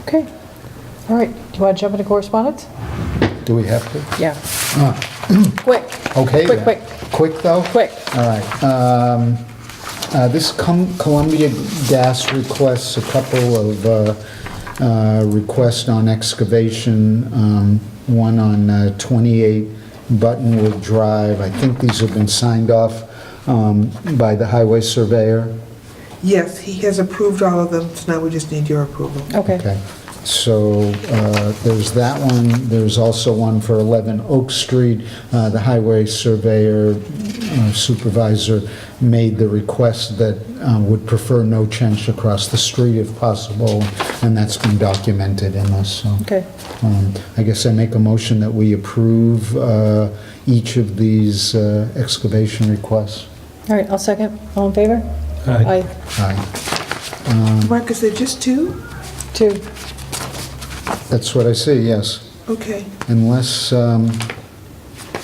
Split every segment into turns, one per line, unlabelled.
Okay. All right. Do you want to jump into correspondence?
Do we have to?
Yeah. Quick.
Okay.
Quick,
then.
quick.
Quick, though?
Quick.
All right. Um, uh, This Com- Columbia Gas requests a couple of uh, uh, requests on excavation, um, one on uh, 28 Buttonwood Drive. I think these have been signed off um, by the highway surveyor.
Yes, he has approved all of them, so now we just need your approval.
Okay.
Okay, so uh, there's that one, there's also one for 11 Oak Street. Uh, The highway surveyor uh, supervisor made the request that uh, would prefer no change across the street if possible, and that's been documented in this, so.
Okay.
Um, I guess I make a motion that we approve uh, each of these uh, excavation requests.
All right, I'll second. All in favor?
Aye.
Aye. Mm.
Mark, is there just two?
Two.
That's what I see, yes.
Okay.
unless, um,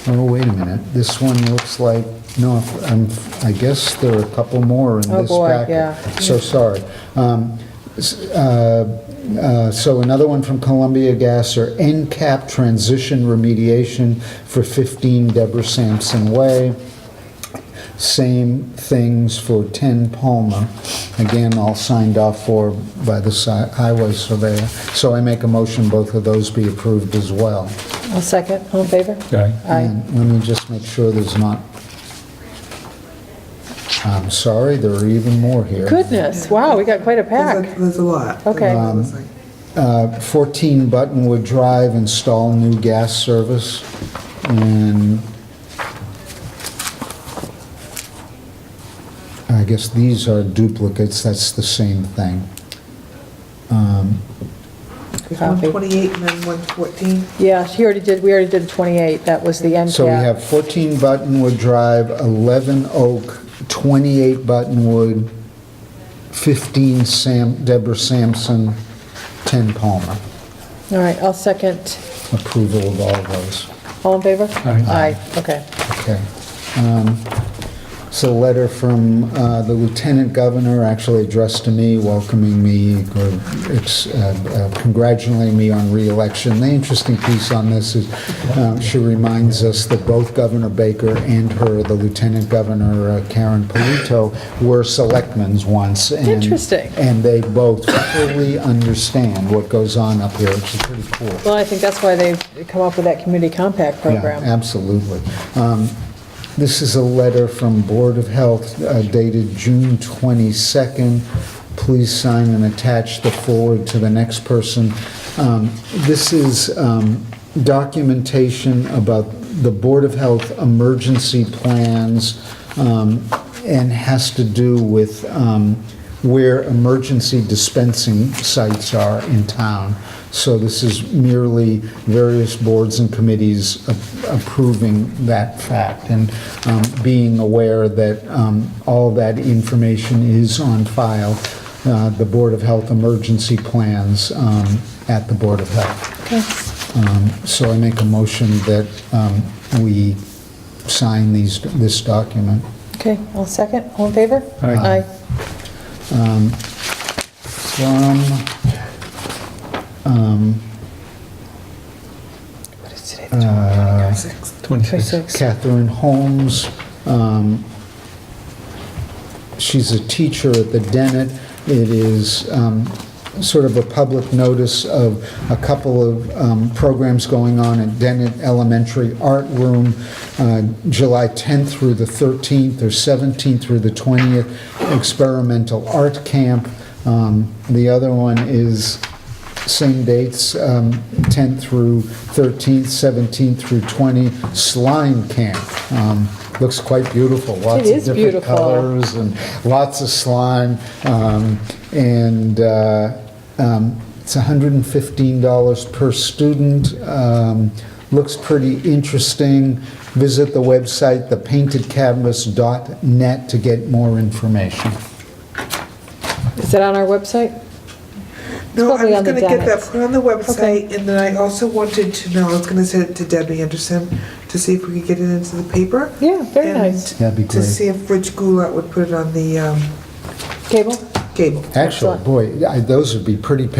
oh, wait a minute, this one looks like, no, I'm- I guess there are a couple more in
Oh,
this
boy,
packet.
yeah.
So sorry. Um, s- uh, uh, So another one from Columbia Gas or NCAP Transition Remediation for 15 Deborah Sampson Way. Same things for 10 Palmer. Again, all signed off for by the si- highway surveyor. So I make a motion both of those be approved as well.
I'll second. All in favor?
Aye.
Aye.
And let me just make sure there's not, I'm sorry, there are even more here.
Goodness, wow, we got quite a
There's
pack.
a- There's a lot.
Okay.
There's a lot.
14 Uh, Buttonwood Drive, install new gas service. And I guess these are duplicates, that's the same thing.
There's 128 and then 114.
Yeah, she already did, we already did 28, that was the end cap.
So we have 14 Buttonwood Drive, 11 Oak, 28 Buttonwood, 15 Sam, Deborah Sampson, 10 Palmer.
All right, I'll second.
Approval of all those.
All in favor?
Aye.
Aye, okay.
Okay. Um, It's a letter from uh, the lieutenant governor, actually addressed to me, welcoming me, or ex- uh, uh, congratulating me on reelection. The interesting piece on this is uh, she reminds us that both Governor Baker and her, the lieutenant governor uh, Karen Polito, were selectmen's once. and-
Interesting.
And they both fully understand what goes on up here, which is pretty cool.
Well, I think that's why they've come up with that community compact
Yeah,
program.
absolutely. Um, This is a letter from Board of Health uh, dated June 22nd. Please sign and attach the forward to the next person. Um, This is um, documentation about the Board of Health emergency plans um, and has to do with um, where emergency dispensing sites are in town. So this is merely various boards and committees a- approving that fact and um, being aware that um, all that information is on file, uh, the Board of Health emergency plans um, at the Board of Health.
Okay.
Um, So I make a motion that um, we sign these, this document.
Okay, I'll second. All in favor?
Aye.
Uh, From,
What is today?
uh,
Six.
26.
26.
Catherine Holmes. um, She's a teacher at the Dennett. It is um, sort of a public notice of a couple of um, programs going on at Dennett Elementary Art Room, uh, July 10th through the 13th, or 17th through the 20th, experimental art camp. Um, The other one is same dates, um, 10th through 13th, 17th through 20, slime camp. Um, Looks quite beautiful, lots
It is
of different
beautiful.
colors and lots of slime. Um, And uh, um, it's $115 per student. Um, Looks pretty interesting. Visit the website, thepaintedcanvas.net, to get more information.
Is it on our website?
No, I
probably
was
on the
going to get that
Dennett's.
put on the
Okay.
website, and then I also wanted to know, I was going to send it to Debbie Anderson to see if we could get it into the paper.
Yeah, very
and
nice.
That'd be
To
great.
see if Rich Goulet would put it on the um,
Cable?
cable.
Actually,
Excellent.
boy, I- those would be pretty pictures